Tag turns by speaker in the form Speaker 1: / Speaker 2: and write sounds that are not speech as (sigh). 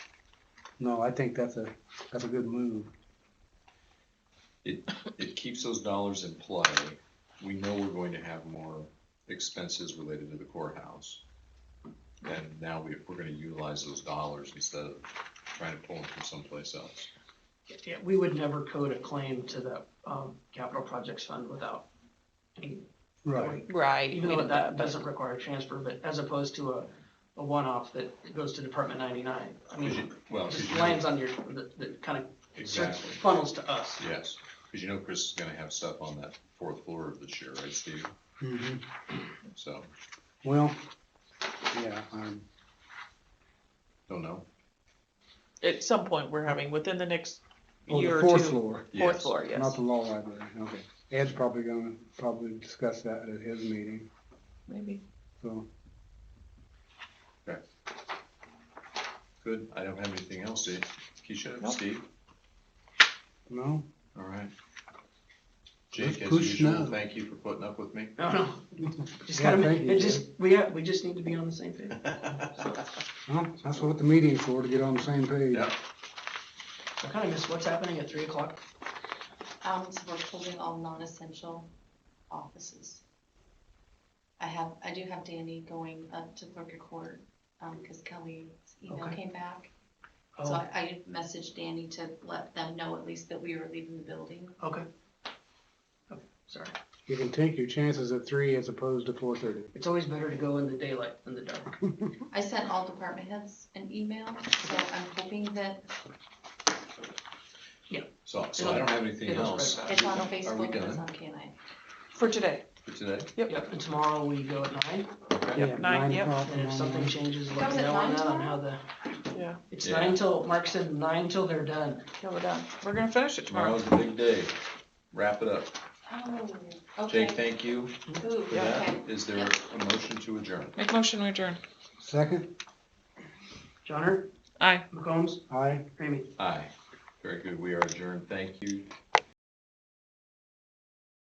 Speaker 1: No, I think that's a, that's a good move.
Speaker 2: it keeps those dollars in play. We know we're going to have more expenses related to the courthouse. And now we, we're gonna utilize those dollars instead of trying to pull them from someplace else.
Speaker 3: Yeah, we would never code a claim to the, um, capital projects fund without. any-
Speaker 4: Right.
Speaker 3: Even though that doesn't require a transfer, but as opposed to a, a one-off that goes to Department ninety-nine. I
Speaker 2: 'Cause
Speaker 3: mean,
Speaker 2: you- Well,
Speaker 3: it
Speaker 2: 'cause
Speaker 3: just
Speaker 2: you-
Speaker 3: lands on your, that, that kind of
Speaker 2: exactly,
Speaker 3: funnels to us.
Speaker 2: yes, because you know Chris is gonna have stuff on that fourth floor of this year, right, Steve?
Speaker 1: Mhm.
Speaker 2: So,
Speaker 1: Well, yeah, um,
Speaker 2: don't know.
Speaker 4: At some point, we're having, within the next
Speaker 1: oh, the
Speaker 4: year or two.
Speaker 1: fourth floor,
Speaker 4: Fourth
Speaker 2: Yes.
Speaker 4: floor,
Speaker 1: not
Speaker 4: yes.
Speaker 1: the law library, okay. Ed's probably gonna, probably discuss that at his meeting,
Speaker 4: Maybe.
Speaker 1: so.
Speaker 2: Good, I don't have anything else, Dave. Keisha,
Speaker 4: Nope.
Speaker 2: Steve,
Speaker 1: No,
Speaker 2: all right. Jake, as
Speaker 1: push
Speaker 2: usual,
Speaker 1: now.
Speaker 2: thank you for putting up with me.
Speaker 3: (laughs) No, no,
Speaker 1: (laughs)
Speaker 3: just
Speaker 1: Yeah,
Speaker 3: gotta,
Speaker 1: thank you,
Speaker 3: it just, we, ha- we just need to be on the same page.
Speaker 1: well, that's what the meeting's for, to get on the same page.
Speaker 2: Yeah.
Speaker 3: I kinda miss what's happening at three o'clock.
Speaker 5: Um, so we're closing all non-essential offices. I have, I do have Danny going up to clerk of court, um, cause Kelly's email
Speaker 3: Okay.
Speaker 5: came back. So
Speaker 3: Oh,
Speaker 5: I, I messaged Danny to let them know at least that we were leaving the building.
Speaker 3: okay. Okay, Sorry,
Speaker 1: You can take your chances at three as opposed to four thirty.
Speaker 3: it's always better to go in the daylight than the dark.
Speaker 5: I sent all department heads an email, so I'm hoping that
Speaker 2: So, so I don't have anything
Speaker 3: It'll
Speaker 2: else.
Speaker 3: spread
Speaker 5: it's on
Speaker 2: Are we
Speaker 5: Facebook and it's
Speaker 2: done
Speaker 5: on K nine.
Speaker 4: For today.
Speaker 2: for today?
Speaker 3: Yep, and tomorrow we go at nine,
Speaker 2: Okay.
Speaker 4: Yep, nine, yep.
Speaker 3: and if something changes, let
Speaker 5: Comes
Speaker 3: me
Speaker 5: at
Speaker 3: know on
Speaker 5: nine
Speaker 3: that, on how the,
Speaker 4: Yeah.
Speaker 3: it's
Speaker 2: Yeah.
Speaker 3: nine till, Mark said nine till they're done.
Speaker 4: Yeah, we're done. We're gonna finish it tomorrow.
Speaker 2: Tomorrow's the big day. Wrap it up.
Speaker 5: Oh, okay.
Speaker 2: Jake, thank you
Speaker 5: Ooh,
Speaker 2: for that.
Speaker 5: okay.
Speaker 2: Is there a motion to adjourn?
Speaker 4: Make motion, we adjourn.
Speaker 1: Second,
Speaker 3: Johnner,
Speaker 4: Aye.
Speaker 3: McCombs,
Speaker 1: aye.
Speaker 3: Ramey.
Speaker 2: Aye. Very good. We are adjourned. Thank you.